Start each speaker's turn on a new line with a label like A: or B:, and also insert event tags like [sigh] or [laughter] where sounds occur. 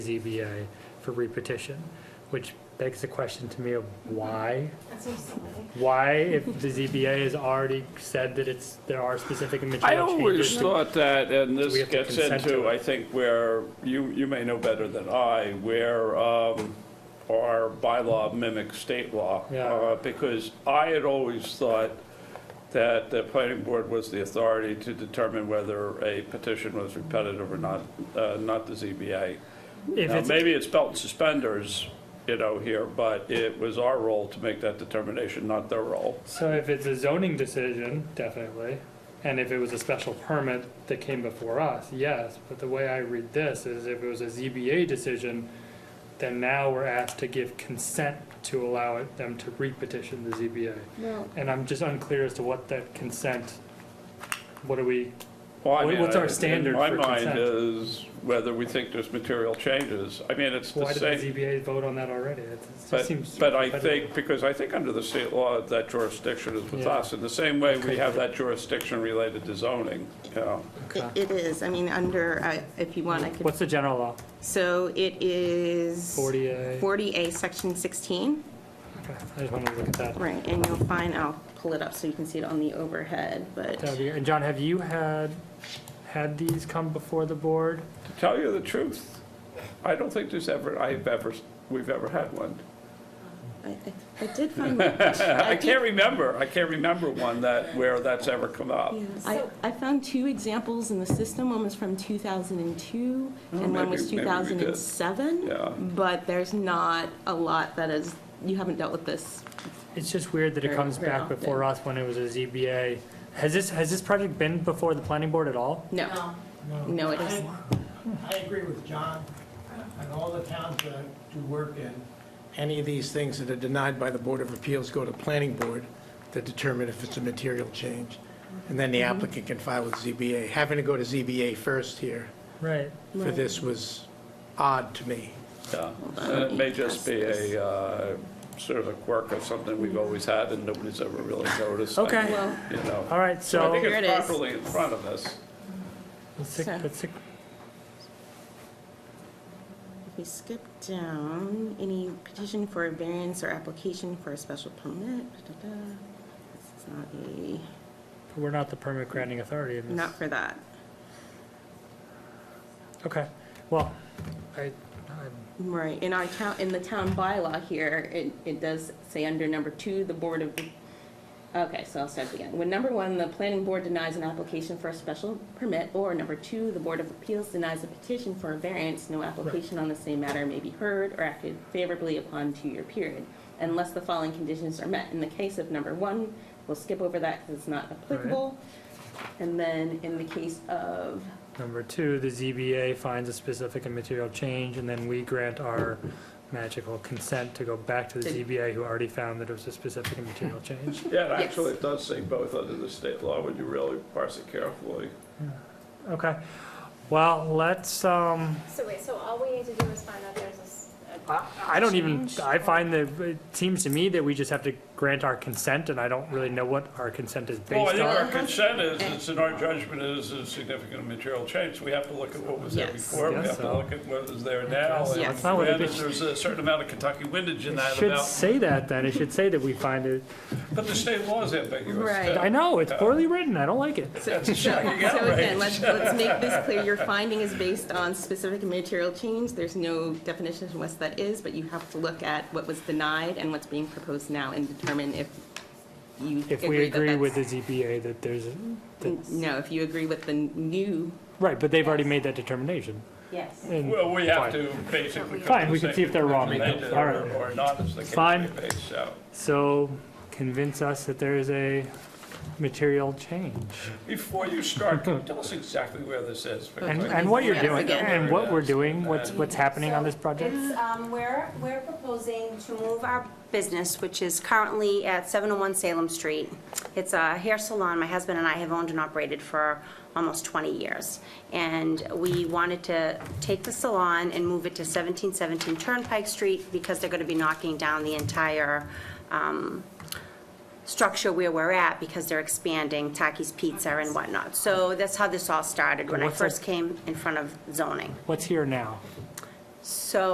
A: ZBA for repetition, which begs the question to me of why?
B: That's so silly.
A: Why, if the ZBA has already said that it's, there are specific and
C: I
A: material
C: always
A: changes?
C: thought that, and
A: We
C: this
A: have to
C: gets
A: consent to
C: into,
A: it.
C: I think, where, you, you may know better than I, where um, our bylaw mimics state law.
A: Yeah.
C: Uh, Because I had always thought that the planning board was the authority to determine whether a petition was repetitive or not, uh, not the ZBA.
A: If
C: Now,
A: it's-
C: maybe it's belt and suspenders, you know, here, but it was our role to make that determination, not their role.
A: So if it's a zoning decision, definitely, and if it was a special permit that came before us, yes, but the way I read this is if it was a ZBA decision, then now we're asked to give consent to allow it, them to repetition the ZBA.
B: Well,
A: And I'm just unclear as to what that consent, what are we,
C: Well, I
A: What-
C: mean,
A: what's our
C: I-
A: standard for
C: In my
A: consent?
C: mind is whether we think there's material changes. I mean, it's the
A: Why did the
C: same,
A: ZBA vote on that already? It just
C: but,
A: seems.
C: but I
A: repetitive.
C: think, because I think under the state law, that jurisdiction is with
A: Yeah.
C: us. In the same way, we have that jurisdiction related to zoning, you know.
A: Okay.
D: It- It is, I mean, under, I- if you want, I could,
A: What's the general law?
D: so it is.
A: 40A.
D: 40A, section 16,
A: Okay, I just wanted to look at that.
D: right, and you'll find, I'll pull it up so you can see it on the overhead, but,
A: That'd be- And John, have you had, had these come before the board?
C: To tell you the truth, I don't think there's ever, I've ever, we've ever had one.
D: I, I- I did find,
C: [laughs]
D: my- I
C: I
D: did,
C: can't remember, I can't remember one that, where that's ever come up.
D: yeah, I, I found two examples in the system, one was from 2002,
C: Oh,
D: and one was
C: maybe- maybe we did.
D: 2007.
C: Yeah.
D: But there's not a lot that is, you haven't dealt with this.
A: It's just weird that it
D: Very-
A: comes
D: very
A: back before us when it was a ZBA. Has this, has this project been before the planning board at all?
D: No,
B: no.
D: no, it isn't.
E: I agree with John and all the towns that I do work in. Any of these things that are denied by the Board of Appeals go to Planning Board to determine if it's a material change. And then
D: Mm-hmm.
E: the applicant can file with ZBA. Having to go to ZBA first here
A: Right.
E: for this was odd to me.
C: Yeah,
D: on,
C: and
D: let
C: Uh, it
D: me
C: may just
D: pass
C: be
D: this.
C: a, uh, sort of a quirk of something we've always had and nobody's ever really noticed. I
A: Okay.
C: mean,
D: Well-
C: You
A: All
C: know,
A: right,
C: so I
A: so,
C: think
D: Here it
C: it's
D: is.
C: properly in front of us.
A: let's see-
D: So-
A: let's see-
D: If we skip down, any petition for a variance or application for a special permit, da-da-da. This is not a,
A: we're not the permit granting authority in this.
D: not for that.
A: Okay, well, I, I'm
D: Right, in our town, in the town bylaw here, it, it does say under number two, the board of, okay, so I'll start again. When number one, the planning board denies an application for a special permit, or number two, the board of appeals denies a petition for a variance, no application on the same matter may be heard or acted favorably upon two-year period, unless the following conditions are met. In the case of number one, we'll skip over that because it's not applicable. And then in the case of,
A: Number two, the ZBA finds a specific and material change, and then we grant our magical consent to go back to the
D: Did-
A: ZBA, who already found that it was a specific and material change.
C: Yeah, and actually, it does say both under the state law when you really parse it carefully.
A: Okay, well, let's, um,
B: So wait, so all we need to do is find out there's this.
A: I, I don't even, I find that, it seems to me that we just have to grant our consent, and I don't really know what our consent is
C: Well, I
A: based
C: think our
A: on.
C: consent is, it's in our judgment is a significant material change. We have to look at what was there
D: Yes.
C: before, we
A: Guess
C: have to
A: so.
C: look at what is there now.
D: so.
C: and
D: That's
A: not what it
C: whether
A: is.
C: There's a certain amount of Kentucky windage in
A: It
C: that
A: should
C: about,
A: say that then, it should say that we find it,
C: but the state law is ambiguous.
D: Right.
C: too.
A: I know, it's poorly written, I don't like it.
D: So, [laughs] so again, let's, let's make this clear, your finding is based on specific material change, there's no definition of what that is, but you have to look at what was denied and what's being proposed now and determine if you agree
A: If we
D: that
A: agree with the
D: that's-
A: ZBA that there's, that-
D: No, if you agree with the new.
A: right, but they've already made that determination.
D: Yes.
A: and-
C: Well, we
A: Fine.
C: have to basically. come
A: Fine,
C: to
A: we
C: the
A: can
C: same
A: see if they're wrong.
C: conclusion they did
A: All
C: or-
A: right.
C: Or not, as the case
A: Fine.
C: may be, so.
A: So convince us that there is a material change.
C: Before
A: [laughs]
C: you start, can you tell us exactly where this is? Because
A: And,
C: I
A: and what you're
D: Yes,
A: doing,
D: again.
A: and what we're doing, what's, what's happening on this project?
F: It's, um, we're, we're proposing to move our business, which is currently at 701 Salem Street. It's a hair salon my husband and I have owned and operated for almost 20 years. And we wanted to take the salon and move it to 1717 Turnpike Street because they're going to be knocking down the entire um, structure where we're at because they're expanding Taki's Pizza and whatnot. So that's how this all started, when I
A: What's that-
F: first came in front of zoning.
A: What's here now?
F: So